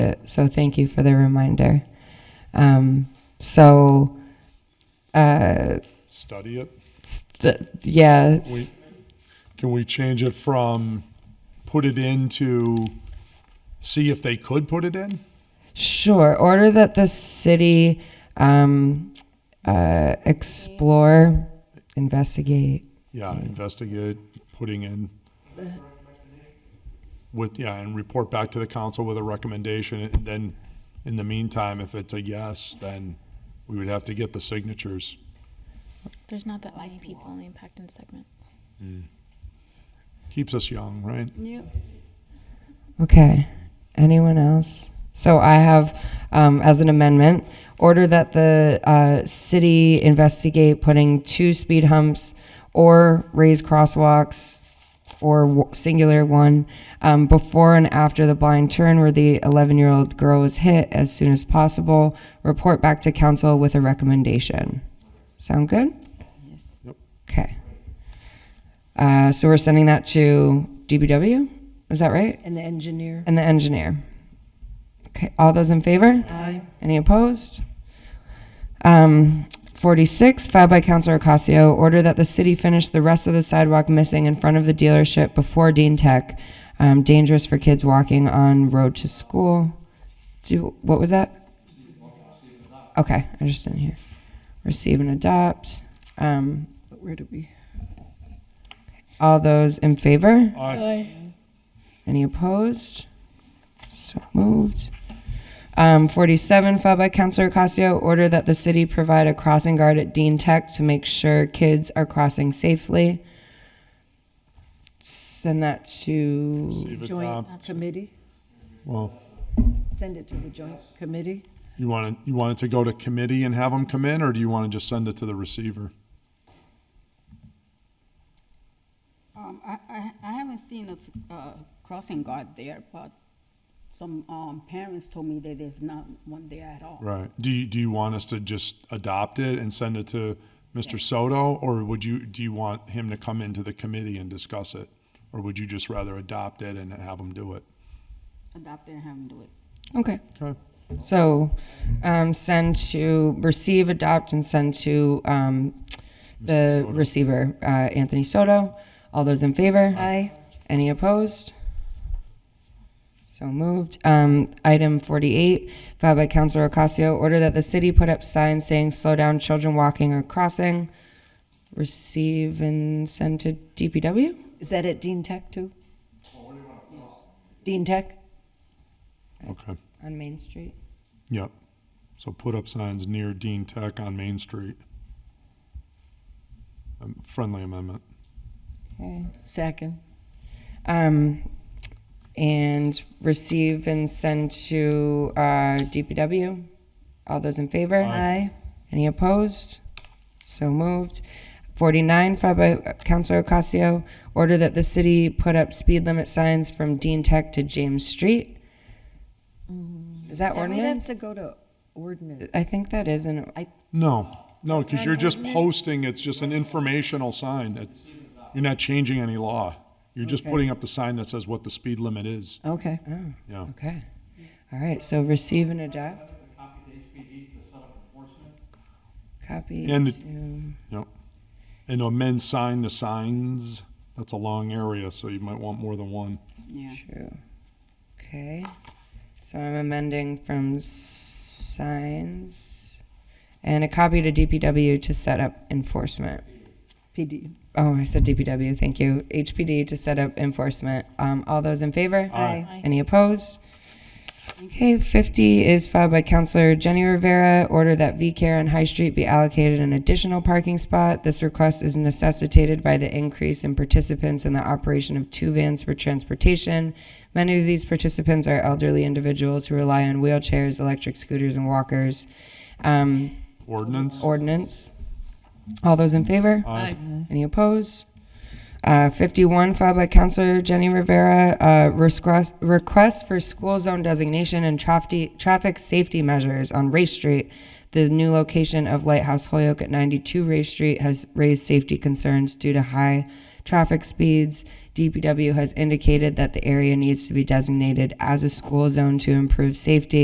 Uh, So thank you for the reminder. Um, So, uh, study it. st- yeah, We, s- can we change it from put it in to see if they could put it in? sure. Order that the city um, uh, explore, investigate. Yeah, investigate putting in with, yeah, and report back to the council with a recommendation. And then, in the meantime, if it's a yes, then we would have to get the signatures. There's not that many people in the impact and segment. Keeps us young, right? Okay. Anyone else? So I have, um, as an amendment, order that the uh, city investigate putting two speed humps or raised crosswalks or w- singular one um, before and after the blind turn where the 11 year old girl was hit as soon as possible. Report back to council with a recommendation. Sound good? Yep. Okay. Uh, so we're sending that to DBW? Is that right? And the engineer? And the engineer. Okay, all those in favor? Aye. Any opposed? Um, 46, filed by Councilor Ocasio, order that the city finish the rest of the sidewalk missing in front of the dealership before Dean Tech. Um, dangerous for kids walking on road to school. Do, what was that? Okay, I just didn't hear. Receive and adopt. Um, But where do we? all those in favor? Aye. Any opposed? So moved. Um, 47, filed by Councilor Ocasio, order that the city provide a crossing guard at Dean Tech to make sure kids are crossing safely. Send that to, See if it, uh, Joint committee? Well, Send it to the joint committee? you want it, you want it to go to committee and have them come in, or do you want to just send it to the receiver? Um, I, I, I haven't seen a, s- uh, crossing guard there, but some, um, parents told me that there's not one there at all. Right. Do you, do you want us to just adopt it and send it to Mr. Soto? Or would you, do you want him to come into the committee and discuss it? Or would you just rather adopt it and have him do it? Adopt it and have them do it. okay. Okay. So, um, send to, receive, adopt, and send to, um, the receiver, uh, Anthony Soto. All those in favor? Aye. Any opposed? So moved. Um, item forty-eight, filed by Councilor Ocasio, order that the city put up signs saying slow down children walking or crossing. Receive and send to DPW? Is that at Dean Tech too? Dean Tech? Okay. On Main Street. Yep. So put up signs near Dean Tech on Main Street. Um, Friendly amendment. Okay. Second. Um, and receive and send to, uh, DPW? All those in favor? Aye. Any opposed? So moved. 49, filed by Councilor Ocasio, order that the city put up speed limit signs from Dean Tech to James Street. Is that That might have ordinance? to go to ordinance. I think that is an, I, No, no, because you're just posting, it's just an informational sign. It- You're not changing any law. You're just putting up the sign that says what the speed limit is. Okay. Yeah. oh, okay. All right, so receive and adopt, copy the HPD to set up enforcement. copy. And it- to- Yep. And amend sign to signs, that's a long area, so you might want more than one. Yeah. True. Okay, so I'm amending from signs and a copy to DPW to set up enforcement. PD. Oh, I said DPW, thank you. HPD to set up enforcement. Um, all those in favor? Aye. Aye. Any opposed? Okay, fifty is filed by Counselor Jenny Rivera, order that V-Care on High Street be allocated an additional parking spot. This request is necessitated by the increase in participants in the operation of two vans for transportation. Many of these participants are elderly individuals who rely on wheelchairs, electric scooters, and walkers. Um, Ordinance? ordinance. All those in favor? Aye. Any opposed? Uh, 51, filed by Counselor Jenny Rivera, uh, request, request for school zone designation and traffic, traffic safety measures on Race Street. The new location of Lighthouse Holyoke at 92 Race Street has raised safety concerns due to high traffic speeds, DPW has indicated that the area needs to be designated as a school zone to improve safety